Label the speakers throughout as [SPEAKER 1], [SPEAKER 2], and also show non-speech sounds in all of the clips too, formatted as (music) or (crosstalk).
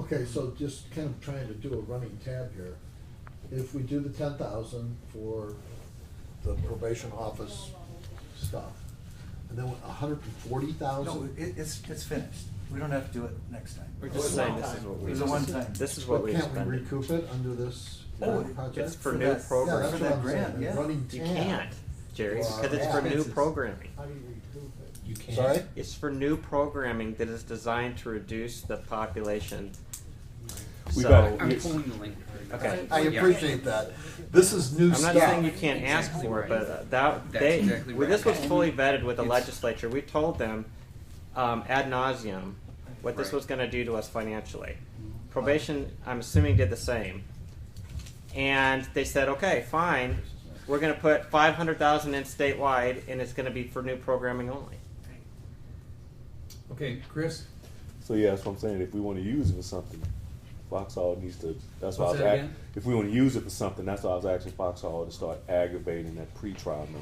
[SPEAKER 1] Okay, so just kind of trying to do a running tab here. If we do the ten thousand for the probation office stuff, and then a hundred and forty
[SPEAKER 2] No,
[SPEAKER 1] thousand?
[SPEAKER 2] it, it's, it's finished. We don't have to do it next time.
[SPEAKER 3] We're
[SPEAKER 2] It was
[SPEAKER 3] just saying
[SPEAKER 2] one
[SPEAKER 3] this is
[SPEAKER 2] time.
[SPEAKER 3] what
[SPEAKER 2] It
[SPEAKER 3] we,
[SPEAKER 2] was a one-time.
[SPEAKER 3] this is what we expended.
[SPEAKER 1] Can't we recoup it under this uh,
[SPEAKER 2] Oh,
[SPEAKER 1] project?
[SPEAKER 3] It's for
[SPEAKER 2] For
[SPEAKER 3] new
[SPEAKER 2] that-
[SPEAKER 1] Yeah,
[SPEAKER 2] program.
[SPEAKER 1] that's what
[SPEAKER 2] for
[SPEAKER 3] programming.
[SPEAKER 2] that
[SPEAKER 1] I'm
[SPEAKER 2] grant,
[SPEAKER 1] saying, a
[SPEAKER 2] yeah.
[SPEAKER 1] running
[SPEAKER 3] You
[SPEAKER 1] tab.
[SPEAKER 3] can't, Jerry,
[SPEAKER 1] Wow.
[SPEAKER 3] because it's for new
[SPEAKER 2] Expenses.
[SPEAKER 3] programming.
[SPEAKER 4] How do you recoup it?
[SPEAKER 5] You can't.
[SPEAKER 1] Sorry?
[SPEAKER 3] It's for new programming that is designed to reduce the population.
[SPEAKER 6] We
[SPEAKER 3] So-
[SPEAKER 6] better-
[SPEAKER 7] I'm
[SPEAKER 6] we-
[SPEAKER 7] pulling the link. right now.
[SPEAKER 3] Okay.
[SPEAKER 1] I
[SPEAKER 7] Yeah.
[SPEAKER 1] appreciate that. This is new
[SPEAKER 3] I'm
[SPEAKER 1] stuff.
[SPEAKER 3] not saying you can't ask
[SPEAKER 7] Exactly
[SPEAKER 3] for it,
[SPEAKER 7] right.
[SPEAKER 3] but uh, that,
[SPEAKER 7] That's
[SPEAKER 3] they,
[SPEAKER 7] exactly
[SPEAKER 3] well,
[SPEAKER 7] right.
[SPEAKER 3] this was fully vetted with the
[SPEAKER 7] It's-
[SPEAKER 3] legislature. We told them um, ad nauseum what this
[SPEAKER 7] Right.
[SPEAKER 3] was going to do to us financially. Probation, I'm assuming, did the same. And they said, okay, fine, we're going to put 500,000 in statewide, and it's going to be for new programming only.
[SPEAKER 5] Okay, Chris,
[SPEAKER 6] So yeah, that's what I'm saying. If we want to use it for something, Foxhall needs to. That's why I
[SPEAKER 5] What's
[SPEAKER 6] was.
[SPEAKER 5] that
[SPEAKER 6] Act,
[SPEAKER 5] again?
[SPEAKER 6] if we want to use it for something, that's why I was asking Foxhall to start aggravating that pre-trial number,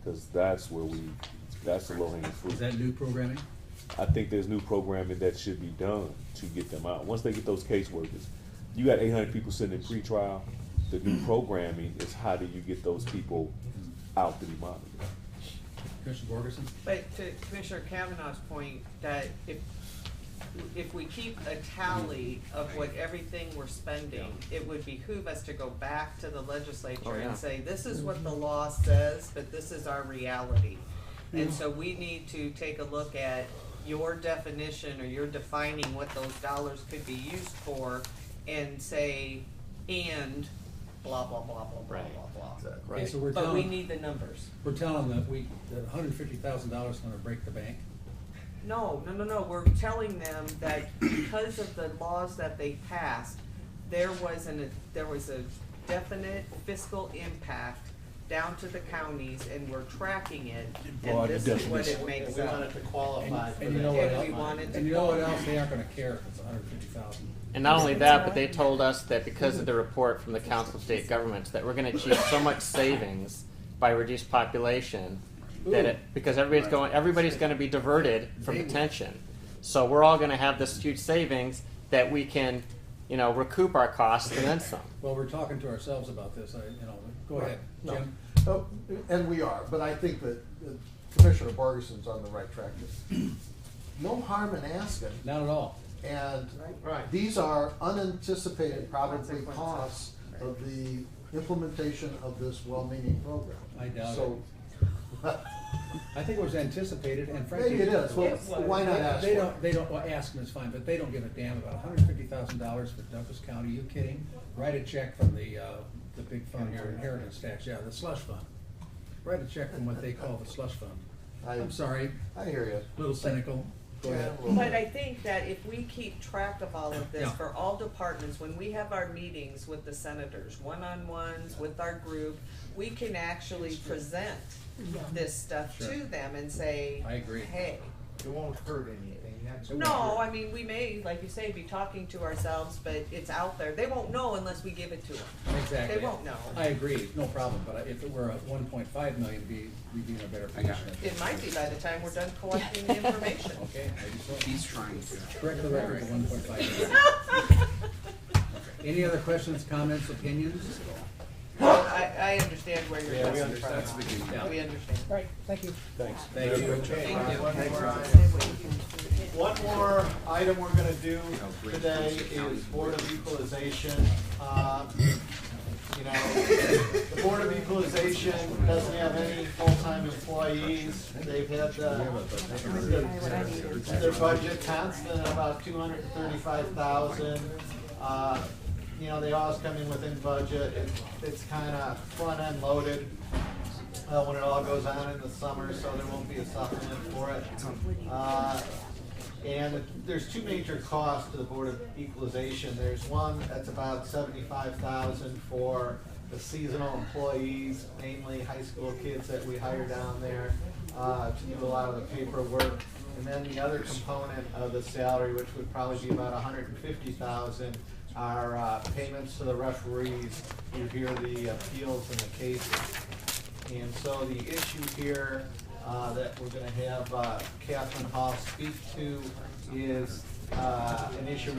[SPEAKER 6] because that's where we. That's the low hanging
[SPEAKER 5] is
[SPEAKER 6] fruit.
[SPEAKER 5] that new programming?
[SPEAKER 6] I think there's new programming that should be done to get them out. Once they get those caseworkers, you got 800 people sitting in pre-trial. The new programming is how do you get those people out to be monitored?
[SPEAKER 5] Commissioner Borgeson?
[SPEAKER 8] But to Commissioner Kavanaugh's point, that if, if we keep a tally of what everything we're spending, it would behoove us to go back to the
[SPEAKER 3] Oh,
[SPEAKER 8] legislature
[SPEAKER 3] yeah.
[SPEAKER 8] and say, this is what the law says, but this is our reality. And so we need to take a look at your definition or your defining what those dollars could be used for and say, and blah, blah, blah, blah, blah,
[SPEAKER 3] Right.
[SPEAKER 8] blah, blah.
[SPEAKER 5] Okay, so we're
[SPEAKER 8] But we
[SPEAKER 5] telling,
[SPEAKER 8] need the numbers.
[SPEAKER 5] we're telling them that we, that hundred and fifty thousand dollars is gonna break the bank.
[SPEAKER 8] No, no, no, no, we're telling them that because of the laws that they passed, there was an, there was a definite fiscal impact down to the counties and we're tracking it, and
[SPEAKER 6] broad
[SPEAKER 8] this is what it
[SPEAKER 6] definition.
[SPEAKER 8] makes
[SPEAKER 4] We want
[SPEAKER 8] up.
[SPEAKER 4] it to qualify for
[SPEAKER 5] And you know
[SPEAKER 4] that.
[SPEAKER 5] what
[SPEAKER 8] Yeah, we
[SPEAKER 5] else?
[SPEAKER 8] wanted to
[SPEAKER 5] And you know what
[SPEAKER 8] go.
[SPEAKER 5] else? They aren't gonna care if it's hundred and fifty thousand.
[SPEAKER 3] And not only that, but they told us that because of the report from the Council of State Governments, that we're gonna achieve so much savings by reduced population, that it, because everybody's going, everybody's gonna be diverted from detention. So we're all gonna have this huge savings that we can, you know, recoup our costs and then some.
[SPEAKER 5] Well, we're talking to ourselves about this, I, you know, go ahead,
[SPEAKER 1] No.
[SPEAKER 5] Jim.
[SPEAKER 1] Oh, And we are, but I think that uh, Commissioner Borgerson's on the right track. No harm in asking,
[SPEAKER 5] Not at all.
[SPEAKER 1] and
[SPEAKER 4] Right.
[SPEAKER 1] these are unanticipated probably
[SPEAKER 8] Consequences.
[SPEAKER 1] costs of the implementation of this well-meaning program.
[SPEAKER 5] I doubt
[SPEAKER 1] So,
[SPEAKER 5] I think it was anticipated and frankly.
[SPEAKER 1] Maybe it is, well,
[SPEAKER 8] It was.
[SPEAKER 1] why not ask for
[SPEAKER 5] They
[SPEAKER 1] it?
[SPEAKER 5] don't, they don't, well, ask them is fine, but they don't give a damn about hundred and fifty thousand dollars for Douglas County, you kidding? Write a check from the, uh, the big fund, your inheritance tax, yeah, the slush fund. Write a check from what they call the slush fund.
[SPEAKER 1] I-
[SPEAKER 5] I'm sorry,
[SPEAKER 1] I hear you.
[SPEAKER 5] little cynical, go ahead.
[SPEAKER 8] But I think that if we keep track of all of this
[SPEAKER 5] Yeah.
[SPEAKER 8] for all departments, when we have our meetings with the senators, one-on-ones with our group, we can actually present this stuff to
[SPEAKER 5] Sure.
[SPEAKER 8] them and say,
[SPEAKER 5] I agree.
[SPEAKER 8] hey,
[SPEAKER 4] It won't hurt anything, that's.
[SPEAKER 8] No, I mean, we may, like you say, be talking to ourselves, but it's out there. They won't know unless we give it to them.
[SPEAKER 5] Exactly.
[SPEAKER 8] They won't know.
[SPEAKER 5] I agree, no problem, but if it were at one point five million, it'd be, we'd be in a better
[SPEAKER 7] I got
[SPEAKER 5] position.
[SPEAKER 8] It might be by the time we're done collecting the (laughs) information.
[SPEAKER 5] Okay, maybe so.
[SPEAKER 7] He's trying to.
[SPEAKER 5] Correct the record to one point five million. Any other questions, comments, opinions?
[SPEAKER 8] I, I understand where you're
[SPEAKER 4] Yeah, we
[SPEAKER 8] coming
[SPEAKER 4] understand.
[SPEAKER 8] from. We understand.
[SPEAKER 4] Right, thank you.
[SPEAKER 6] Thanks.
[SPEAKER 5] Thank you.
[SPEAKER 8] Thank you.
[SPEAKER 4] One more item. One more item we're gonna do today is Board of Equalization. Uh, You know, the Board of Equalization doesn't have any full-time employees. They've had uh, their budget constant at about two hundred and thirty-five thousand. Uh, You know, they always come in within budget. It's- It's kinda front-end loaded uh, when it all goes on in the summer, so there won't be a supplement for it. Uh, And there's two major costs to the Board of Equalization. There's one that's about seventy-five thousand for the seasonal employees, mainly high school kids that we hire down there uh, to do a lot of the paperwork. And then the other component of the salary, which would probably be about a hundred and fifty thousand, are uh, payments to the referees who hear the appeals and the cases. And so the issue here uh, that we're gonna have uh, Catherine Hall speak to is uh, an issue